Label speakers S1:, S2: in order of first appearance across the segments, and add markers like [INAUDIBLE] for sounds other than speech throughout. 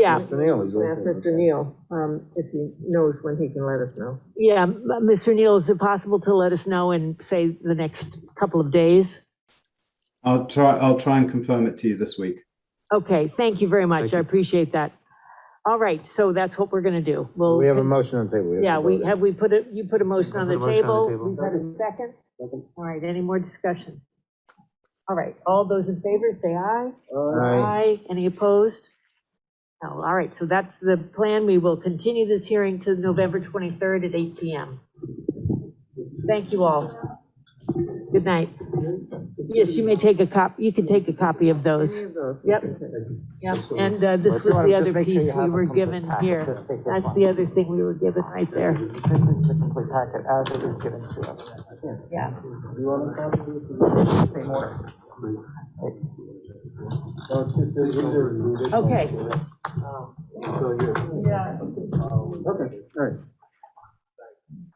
S1: Yeah,
S2: Mr. Neal is
S3: Ask
S2: okay.
S3: Mr. Neal, um, if he knows when he can let us know.
S1: yeah, m- Mr. Neal, is it possible to let us know in, say, the next couple of days?
S4: I'll try, I'll try and confirm it to you this week.
S1: Okay, thank you very much,
S2: Thank
S1: I
S2: you.
S1: appreciate that. All right, so that's what we're gonna do. We'll.
S2: We have a motion on the table. have to
S1: Yeah, we,
S2: vote it.
S1: have we put a, you put a motion on
S2: put
S1: the
S2: a motion on
S1: table?
S2: the table.
S1: We've had a second? All right, any more discussion? All right, all those in favor, say aye.
S2: Aye.
S1: Any opposed? No, all right, so that's the plan. We will continue this hearing to November 23rd at 8 PM. Thank you all. Good night. Yes, you may take a cop, you can take a copy of those. Yep. Yep, and uh, this was the other piece we were given here. That's the other thing we were given right there.
S5: This is the complete packet as it was given to us.
S1: Yeah.
S5: Same order.
S1: Okay.
S2: Okay, all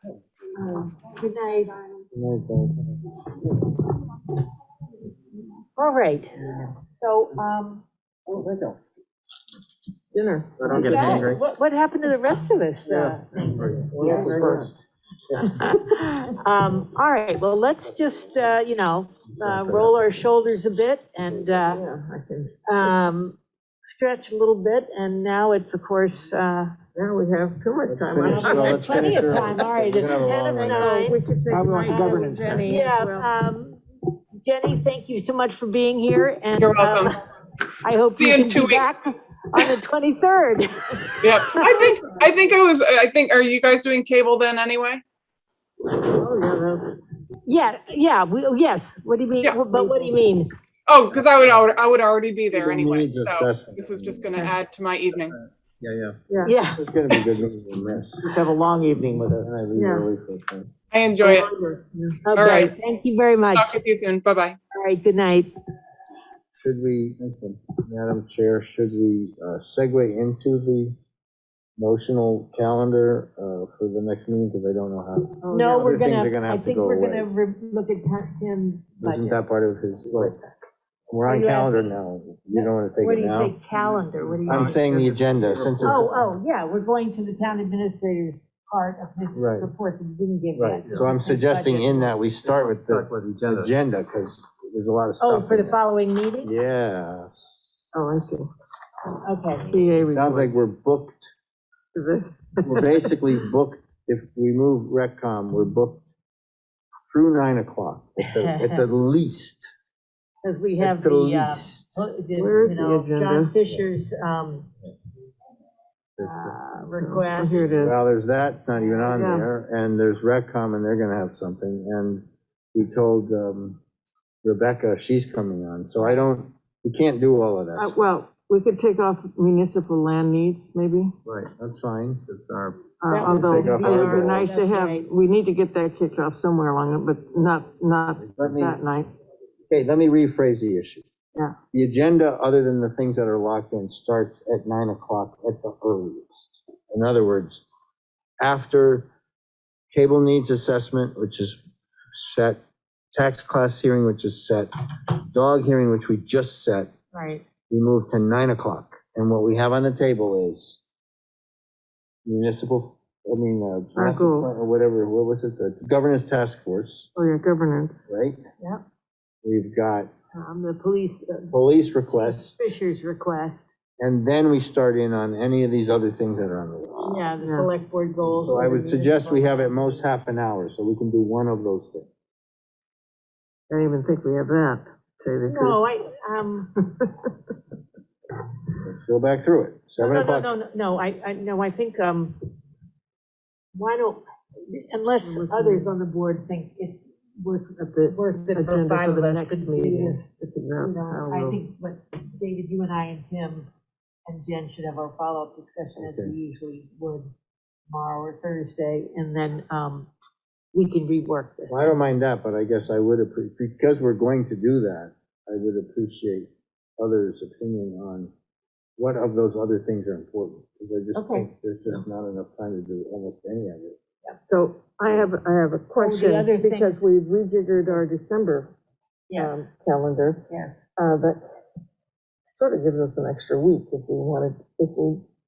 S2: right.
S1: Good night.
S2: No, thank you.
S1: All right. So, um,
S2: Oh, there you go.
S3: Dinner.
S2: I don't get
S1: yeah,
S2: angry.
S1: what, what happened to the rest of this? uh,
S2: Yeah, first.
S1: [LAUGHS] Um, all right, well, let's just, uh, you know, uh, roll our shoulders a bit and, uh,
S3: Yeah, I can,
S1: um, stretch a little bit. And now it's, of course, uh,
S3: now we have too much time.
S2: finish, uh,
S3: I-
S2: let's
S1: plenty of
S2: finish early.
S1: time. All right,
S2: We're
S1: it's
S2: gonna have a
S1: 10
S2: long
S1: of
S2: one.
S3: I-
S1: nine.
S3: We could say
S5: I
S3: goodnight
S5: would like
S3: to
S5: governance.
S3: Jenny
S1: Yeah,
S3: as well.
S1: um, Jenny, thank you so much for being here and.
S6: You're
S1: um,
S6: welcome.
S1: I hope
S6: See
S1: you
S6: you in
S1: can
S6: two
S1: be
S6: weeks.
S1: back on the
S6: [LAUGHS]
S1: 23rd.
S6: Yep. I think I think I was I think are you guys doing cable then anyway?
S3: Oh, yeah, that's-
S1: Yeah, yeah, we, yes, what do you mean,
S6: Yeah.
S1: but what do you mean?
S6: Oh, because I would al- I would already be
S2: We
S6: there
S2: don't
S6: anyway.
S2: need to
S6: So
S2: discuss it.
S6: this is just gonna add to my evening.
S2: Yeah, yeah.
S3: Yeah,
S1: Yeah,
S2: It's gonna be good when we miss.
S5: Just have a long evening with us.
S2: And I leave
S3: Yeah.
S2: early for things.
S6: I enjoy it.
S1: okay,
S6: right.
S1: thank you very much.
S6: Talk with you soon. Bye bye.
S1: All right, good night.
S2: Should we, Madam Chair, should we uh, segue into the motional calendar uh, for the next meeting? Because I don't know how,
S3: Oh,
S1: No,
S3: yeah.
S1: we're
S2: Other things are
S1: gonna,
S2: gonna
S1: I
S2: have to
S1: think
S2: go
S1: we're
S2: away.
S1: gonna re- look at Tim- Tim's
S2: isn't
S1: budget.
S2: that part of his, like, we're on
S1: Are you
S2: calendar
S1: asking-
S2: now. You don't want to
S1: What do
S2: take it
S1: you
S2: now?
S1: say, calendar, what do you?
S2: I'm saying the agenda, since
S1: Oh,
S2: it's,
S1: oh, yeah, we're going to the town administrator's part of this
S2: Right.
S1: report that we didn't give
S2: right,
S1: yet.
S2: so I'm suggesting in that we start with the
S7: Start with agenda.
S2: agenda, because there's a lot of stuff.
S1: Oh, for
S2: in
S1: the
S2: there.
S1: following meeting?
S2: Yes.
S3: Oh, I see.
S1: Okay,
S3: CA
S2: Sounds
S3: report.
S2: like we're booked
S1: [LAUGHS]
S2: we're basically booked, if we move Reccom, we're booked through nine o'clock, at the,
S1: [LAUGHS]
S2: at the least.
S1: because we
S2: At
S1: have
S2: the
S1: the, uh,
S2: least.
S1: well, the,
S3: Where's
S1: you
S3: the
S1: know, John
S3: agenda?
S1: Fisher's, um,
S2: Well,
S1: uh,
S3: Oh,
S1: request.
S3: Here it is.
S2: there's that, not even on
S3: Yeah.
S2: there, and there's Reccom, and they're gonna have something, and we told, um, Rebecca, she's coming on, so I don't, we can't do all of
S3: Uh,
S2: that.
S3: Well, we could take off municipal land needs, maybe,
S2: Right, that's fine, it's our,
S3: Uh,
S1: That would
S3: although
S2: take off
S3: it would
S2: our-
S3: be nice to
S1: That's
S3: have,
S1: right.
S3: we need to get that kicked off somewhere along it, but not, not
S2: let me,
S3: that night.
S2: okay, let me rephrase the issue.
S3: Yeah.
S2: The agenda, other than the things that are locked in, starts at nine o'clock at the earliest. In other words, after cable needs assessment, which is set, tax class hearing, which is set, dog hearing, which we just set,
S1: Right,
S2: we move to nine o'clock. And what we have on the table is municipal, I mean, uh,
S3: Our goal.
S2: or whatever, what was it, the governance task force,
S3: Oh, yeah, governance.
S2: right?
S1: Yep.
S2: We've got
S1: um, the police, uh, [LAUGHS]
S2: police requests,
S1: Fisher's request,
S2: and then we start in on any of these other things that are on the list.
S1: yeah, the
S3: Yeah.
S1: select board goals.
S2: So I
S1: for
S2: would
S1: the
S2: suggest we
S1: municipal-
S2: have at most half an hour, so we can do one of those things.
S3: I don't even think we have that, to tell you the truth.
S1: No, I, um,
S2: Let's go back through it,
S1: no,
S2: seven
S1: no, no,
S2: o'clock.
S1: no, no, no, I, I, no, I think, um, why don't, unless others on the board think it's worth,
S3: At the
S1: worth it for
S3: agenda
S1: five
S3: for
S1: of
S3: the
S1: us
S3: next
S1: to do
S3: meeting.
S1: this.
S3: It's about
S1: You know, I
S3: how
S1: think what, David, you and I and Tim and Jen should have our follow-up discussion as we
S2: Okay.
S1: usually would tomorrow or Thursday, and then, um, we can rework this.
S2: Well, I don't mind that, but I guess I would appreciate, because we're going to do that, I would appreciate others' opinion on what of those other things are important, because I just
S1: Okay.
S2: think there's just not enough time to do almost any of it.
S3: So I have, I have a
S1: Oh, other
S3: question,
S1: thing-
S3: because we rejiggered our December
S1: Yeah,
S3: um, calendar,
S1: yes.
S3: uh, but sort of gives us an extra week if we wanted, if we